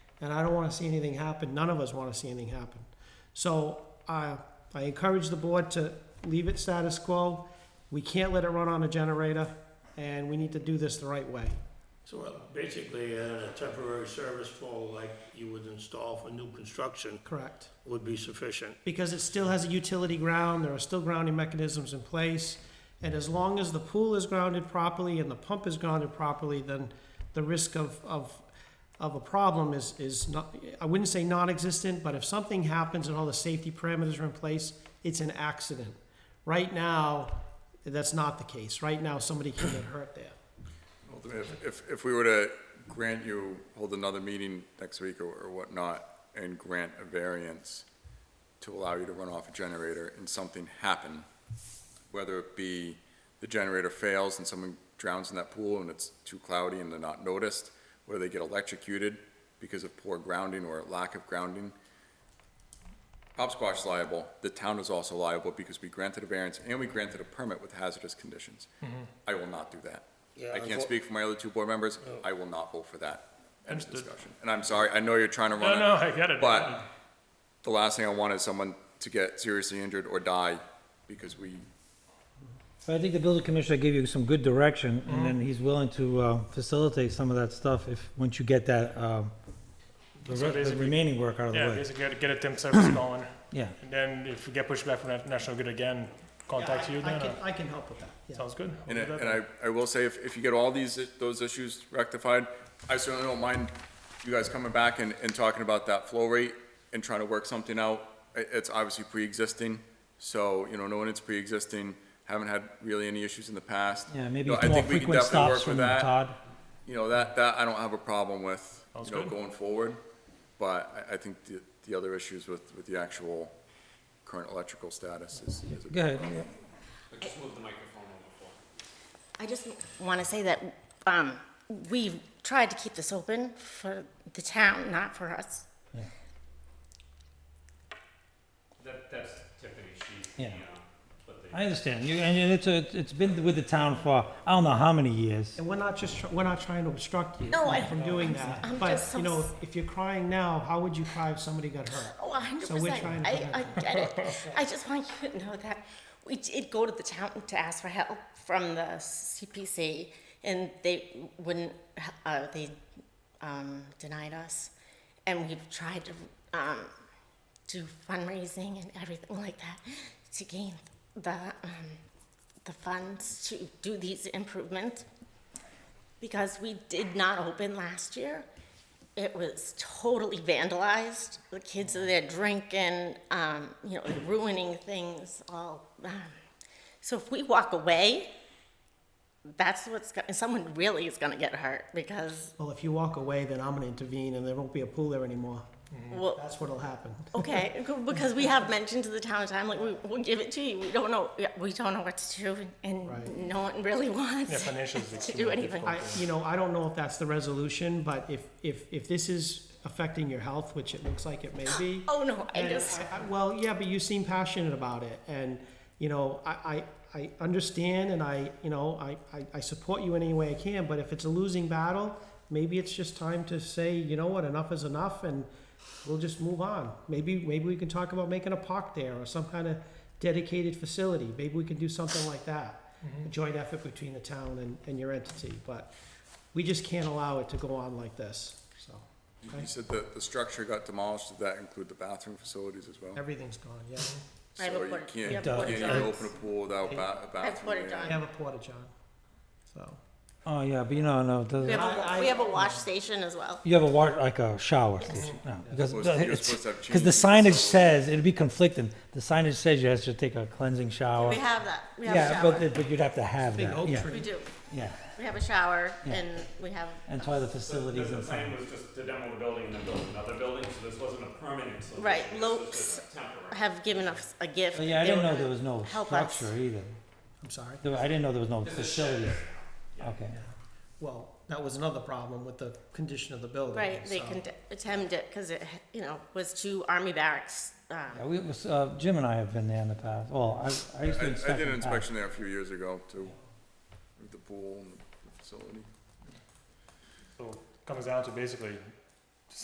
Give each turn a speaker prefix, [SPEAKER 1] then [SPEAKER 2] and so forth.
[SPEAKER 1] and I don't want to see anything happen. None of us want to see anything happen. So I, I encourage the board to leave it status quo. We can't let it run on a generator, and we need to do this the right way.
[SPEAKER 2] So uh, basically, uh, a temporary service pole like you would install for new construction
[SPEAKER 1] Correct.
[SPEAKER 2] would be sufficient.
[SPEAKER 1] Because it still has a utility ground, there are still grounding mechanisms in place. And as long as the pool is grounded properly and the pump is grounded properly, then the risk of, of, of a problem is, is not, I wouldn't say non-existent, but if something happens and all the safety parameters are in place, it's an accident. Right now, that's not the case. Right now, somebody can get hurt there.
[SPEAKER 3] Ultimately, if- if, if we were to grant you, hold another meeting next week or- or whatnot, and grant a variance to allow you to run off a generator and something happen, whether it be the generator fails and someone drowns in that pool and it's too cloudy and they're not noticed, whether they get electrocuted because of poor grounding or lack of grounding, Hopsquash's liable, the town is also liable because we granted a variance and we granted a permit with hazardous conditions.
[SPEAKER 4] Mm-hmm.
[SPEAKER 3] I will not do that.
[SPEAKER 2] Yeah,
[SPEAKER 3] I can't
[SPEAKER 2] unfo-
[SPEAKER 3] speak for my other two board members, I will not vote for that. End of
[SPEAKER 4] Understood.
[SPEAKER 3] discussion. And I'm sorry, I know you're trying to
[SPEAKER 4] No,
[SPEAKER 3] run
[SPEAKER 4] Oh, no,
[SPEAKER 3] it,
[SPEAKER 4] I get it.
[SPEAKER 3] but the last thing I want is someone to get seriously injured or die because we,
[SPEAKER 5] But I think the building commissioner gave you some good direction, and then he's willing to uh, facilitate some of that stuff if, once you get that, um, the
[SPEAKER 4] So
[SPEAKER 5] re- the
[SPEAKER 4] basically-
[SPEAKER 5] remaining work out of the
[SPEAKER 4] Yeah,
[SPEAKER 5] way.
[SPEAKER 4] basically, get a temp service going,
[SPEAKER 5] Yeah.
[SPEAKER 4] and then if we get pushed back from that National Grid again, contact
[SPEAKER 1] Yeah, I-
[SPEAKER 4] you
[SPEAKER 1] I
[SPEAKER 4] then,
[SPEAKER 1] can,
[SPEAKER 4] or-
[SPEAKER 1] I can help with that, yeah.
[SPEAKER 4] sounds good.
[SPEAKER 3] and
[SPEAKER 4] We'll
[SPEAKER 3] I,
[SPEAKER 4] do that
[SPEAKER 3] and I, I will say, if, if you get all these, those issues rectified, I certainly don't mind you guys coming back and, and talking about that flow rate and trying to work something out. It, it's obviously pre-existing, so, you know, knowing it's pre-existing, haven't had really any issues in the past.
[SPEAKER 5] Yeah, maybe
[SPEAKER 3] No, I think
[SPEAKER 5] more
[SPEAKER 3] we can
[SPEAKER 5] frequent
[SPEAKER 3] definitely work
[SPEAKER 5] stops
[SPEAKER 3] with
[SPEAKER 5] from
[SPEAKER 3] that.
[SPEAKER 5] Todd.
[SPEAKER 3] you know, that, that I don't have a problem with,
[SPEAKER 4] Sounds
[SPEAKER 3] you know,
[SPEAKER 4] good.
[SPEAKER 3] going forward. But I, I think the, the other issues with, with the actual current electrical status is, is a
[SPEAKER 5] Go ahead.
[SPEAKER 6] I just want to say that um, we've tried to keep this open for the town, not for us.
[SPEAKER 7] That, that's Tiffany, she's,
[SPEAKER 5] Yeah.
[SPEAKER 7] you know, but the,
[SPEAKER 5] I understand. You, and it's, a- it's been with the town for, I don't know how many years.
[SPEAKER 1] And we're not just, tr- we're not trying to obstruct you
[SPEAKER 6] No, I-
[SPEAKER 1] from doing that.
[SPEAKER 6] I'm
[SPEAKER 1] But,
[SPEAKER 6] just so
[SPEAKER 1] you know,
[SPEAKER 6] s-
[SPEAKER 1] if you're crying now, how would you cry if somebody got hurt?
[SPEAKER 6] Oh, 100%.
[SPEAKER 1] So we're trying to
[SPEAKER 6] I,
[SPEAKER 1] prevent
[SPEAKER 6] I get it. I just want you to know that we did go to the town to ask for help from the CPC, and they wouldn't, uh, they um, denied us. And we've tried to um, do fundraising and everything like that to gain the, um, the funds to do these improvements. Because we did not open last year. It was totally vandalized. The kids are there drinking, um, you know, ruining things all. Um, so if we walk away, that's what's going someone really is going to get hurt because
[SPEAKER 1] Well, if you walk away, then I'm gonna intervene and there won't be a pool there anymore.
[SPEAKER 4] Mm.
[SPEAKER 6] well,
[SPEAKER 1] That's what'll happen.
[SPEAKER 6] okay, because we have mentioned to the town time like we, we'll give it to you. We don't know we don't know what to do and
[SPEAKER 1] Right.
[SPEAKER 6] no one really wants
[SPEAKER 4] Yeah, financials is
[SPEAKER 6] to
[SPEAKER 4] extremely
[SPEAKER 6] do anything.
[SPEAKER 1] I, you know, I don't know if that's the resolution, but if, if, if this is affecting your health, which it looks like it may be.
[SPEAKER 6] Oh no, I
[SPEAKER 1] And
[SPEAKER 6] just
[SPEAKER 1] I- I- Well, yeah, but you seem passionate about it, and, you know, I, I, I understand, and I, you know, I, I, I support you in any way I can, but if it's a losing battle, maybe it's just time to say, you know what, enough is enough, and we'll just move on. Maybe, maybe we can talk about making a park there, or some kind of dedicated facility, maybe we can do something like that.
[SPEAKER 6] Mm-hmm.
[SPEAKER 1] A joint effort between the town and, and your entity, but we just can't allow it to go on like this, so,
[SPEAKER 3] You said that the structure got demolished, did that include the bathroom facilities as well?
[SPEAKER 1] everything's gone, yeah.
[SPEAKER 6] I have a
[SPEAKER 3] So you
[SPEAKER 6] porta- we
[SPEAKER 3] can't, you
[SPEAKER 6] have
[SPEAKER 3] can't
[SPEAKER 5] porta
[SPEAKER 3] even
[SPEAKER 6] johns.
[SPEAKER 3] open a pool without ba- a bathroom.
[SPEAKER 6] porta
[SPEAKER 3] area.
[SPEAKER 1] We have a porta john, so.
[SPEAKER 5] Oh, yeah, but you know, no, it doesn't-
[SPEAKER 6] we have,
[SPEAKER 1] I-
[SPEAKER 6] a,
[SPEAKER 1] I-
[SPEAKER 6] we have a wash station as well.
[SPEAKER 5] you have a wa, like a shower station, no, because,
[SPEAKER 3] You're supposed to- you're
[SPEAKER 5] it's-
[SPEAKER 3] supposed to have
[SPEAKER 5] because the
[SPEAKER 3] changing
[SPEAKER 5] signage
[SPEAKER 3] facilities.
[SPEAKER 5] says, it'd be conflicting. The signage says you have to take a cleansing shower.
[SPEAKER 6] We have that. We have a
[SPEAKER 5] Yeah,
[SPEAKER 6] shower.
[SPEAKER 5] but, the- but you'd have to have
[SPEAKER 1] Big
[SPEAKER 5] that,
[SPEAKER 1] oak
[SPEAKER 5] yeah,
[SPEAKER 1] tree.
[SPEAKER 6] we do.
[SPEAKER 5] yeah.
[SPEAKER 6] We have a shower
[SPEAKER 5] Yeah.
[SPEAKER 6] and we have.
[SPEAKER 5] And toilet
[SPEAKER 7] the,
[SPEAKER 5] facilities
[SPEAKER 7] the
[SPEAKER 5] and
[SPEAKER 7] plan
[SPEAKER 5] things.
[SPEAKER 7] was just to demo the building and then build another building, so this wasn't a permanent solution.
[SPEAKER 6] Right,
[SPEAKER 7] this was
[SPEAKER 6] Lopes
[SPEAKER 7] just a temporary.
[SPEAKER 6] have given us a gift.
[SPEAKER 5] But Oh, yeah, I
[SPEAKER 6] They
[SPEAKER 5] didn't
[SPEAKER 6] were
[SPEAKER 5] know
[SPEAKER 6] gonna
[SPEAKER 5] there was no
[SPEAKER 6] help us.
[SPEAKER 5] structure either.
[SPEAKER 1] I'm sorry.
[SPEAKER 5] There- I didn't know there was no facility. Okay.
[SPEAKER 1] Well, that was another problem with the condition of the building.
[SPEAKER 6] Right, they
[SPEAKER 1] so-
[SPEAKER 6] can attempt it because it, you know, was two army barracks. um,
[SPEAKER 5] Yeah, we, it was, uh, Jim and I have been there in the past. Well, I, I used to inspect.
[SPEAKER 3] I, I did an
[SPEAKER 5] in the past.
[SPEAKER 3] inspection there a few years ago too, with the pool and the facility.
[SPEAKER 4] So it comes down to basically